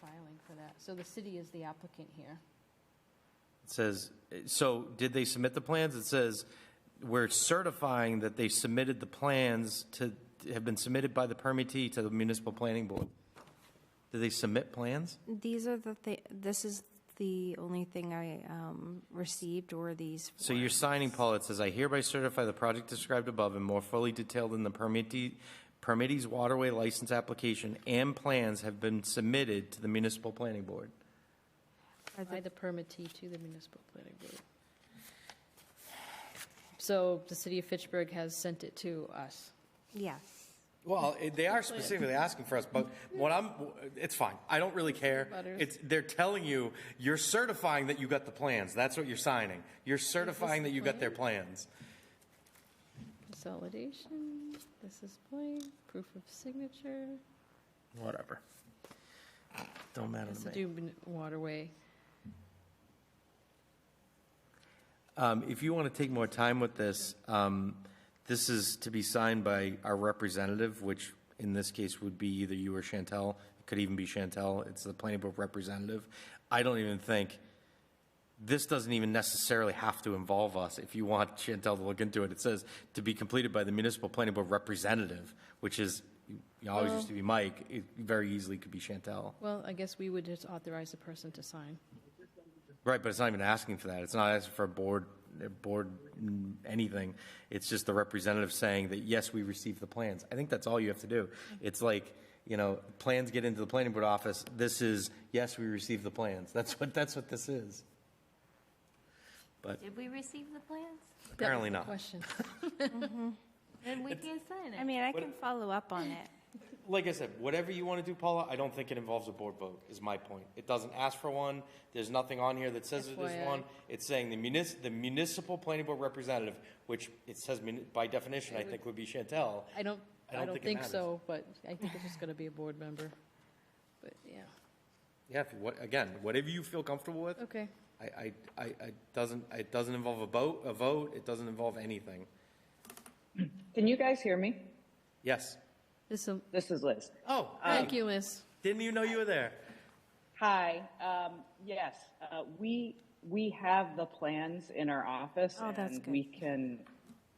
filing for that. So the city is the applicant here. It says, so did they submit the plans? It says, we're certifying that they submitted the plans to, have been submitted by the permittee to the municipal planning board. Did they submit plans? These are the, thi- this is the only thing I um, received were these. So you're four. signing, Paul, it says, I hereby certify the project described above and more fully detailed in the permittee, permittee's waterway license application and plans have been submitted to the municipal planning board. Are By the the- permittee to the municipal planning board. So the city of Fitchburg has sent it to us. Yes. Well, eh, they are specifically asking for us, but what I'm, it's fine. I don't really care. Butters. It's, they're telling you, you're certifying that you got the plans. That's what you're signing. You're certifying that you got their plans. Consolidation, this is blank, proof of signature. Whatever. Don't matter Has to to me. do with waterway. Um, if you want to take more time with this, um, this is to be signed by our representative, which in this case would be either you or Chantel. It could even be Chantel. It's the planning board representative. I don't even think, this doesn't even necessarily have to involve us. If you want Chantel to look into it, it says to be completed by the municipal planning board representative, which is, you know, always used to be Mike. It very easily could be Chantel. Well, I guess we would just authorize the person to sign. Right, but it's not even asking for that. It's not asking for a board, a board, mm, anything. It's just the representative saying that, yes, we received the plans. I think that's all you have to do. It's like, you know, plans get into the planning board office. This is, yes, we received the plans. That's what, that's what this is. But Did we receive the plans? apparently not. Question. Then we can't sign it. I mean, I can follow up on it. Like I said, whatever you want to do, Paula, I don't think it involves a board vote, is my point. It doesn't ask for one. There's nothing on here that says it FYI. is one. It's saying the munis, the municipal planning board representative, which it says muni- by definition, I think would be Chantel. I don't, I I don't don't think it think matters. so, but I think it's just going to be a board member. But, yeah, Yeah, if you- what, again, whatever you feel comfortable with. okay. I, I, I, I doesn't, it doesn't involve a vote, a vote, it doesn't involve anything. Can you guys hear me? Yes. This'll, This is Liz. Oh, um, thank hey, you, Liz. Didn't even know you were there. Hi. Um, yes, uh, we we have the plans in our office, Oh, and that's good. we can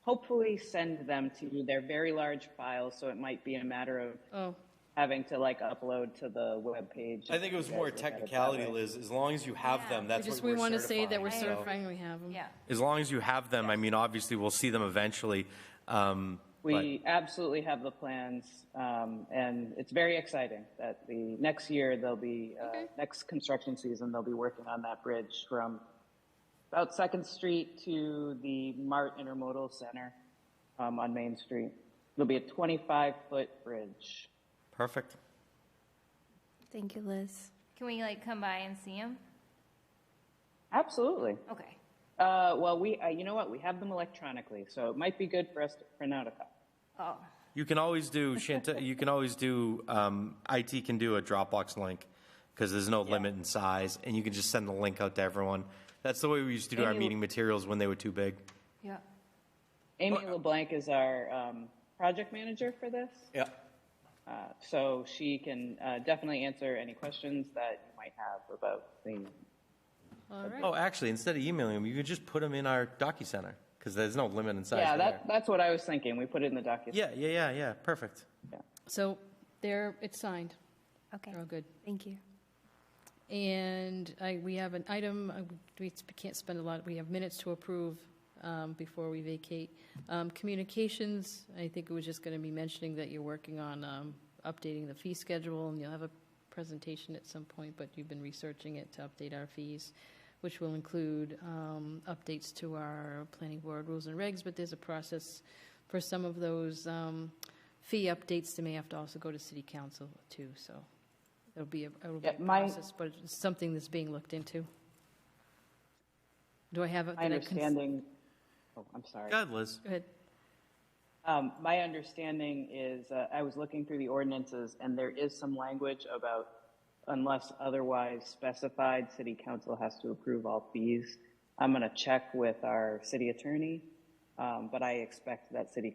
hopefully send them to you. They're very large files, so it might be a matter of Oh, having to like upload to the web page. I think it was more technicality, Liz. As long as you have them, we that's what just, we're we want to say that we're certifying, so- certifying we have them. Yeah. As long as you have them, I mean, obviously, we'll see them eventually. Um, We absolutely have the plans, um, and it's very exciting that the next year they'll be uh, Okay. next construction season they'll be working on that bridge from about Second Street to the Mart Intermodal Center um, on Main Street. It'll be a 25 foot bridge. Perfect. Thank you, Liz. Can we like come by and see him? Absolutely. Okay. Uh, well, we uh, you know what we have them electronically, so it might be good for us to print out a copy. Oh, You can always do Chantel. you can always do um, IT can do a Dropbox link because there's no limit in size, and you can just send the link out to everyone. That's the way we used to do our Maybe- meeting materials when they were too big. yeah. Amy LeBlanc is our um, project manager for this. Yeah. Uh, So she can uh, definitely answer any questions that you might have about the, All right. Oh, actually, instead of emailing them, you could just put them in our DocuSigner because there's no limit in size. yeah, there. that, that's what I was thinking. We put it in the document. yeah, yeah, yeah, yeah. Perfect. So there, it's signed. Okay, They're all good. thank you. And I, we have an item, uh, we can't spend a lot, we have minutes to approve um, before we vacate. Um, Communications, I think it was just going to be mentioning that you're working on um, updating the fee schedule, and you'll have a presentation at some point, but you've been researching it to update our fees, which will include um, updates to our planning board rules and regs, but there's a process for some of those um, fee updates that may have to also go to city council too, so it'll be a it'll be a Yeah, my- process, but it's something that's being looked into. Do I have? a- My did I cons- understanding, oh, I'm sorry. God, Liz. Go ahead. Um, my understanding is, uh, I was looking through the ordinances and there is some language about unless otherwise specified, city council has to approve all fees. I'm going to check with our city attorney, um, but I expect that city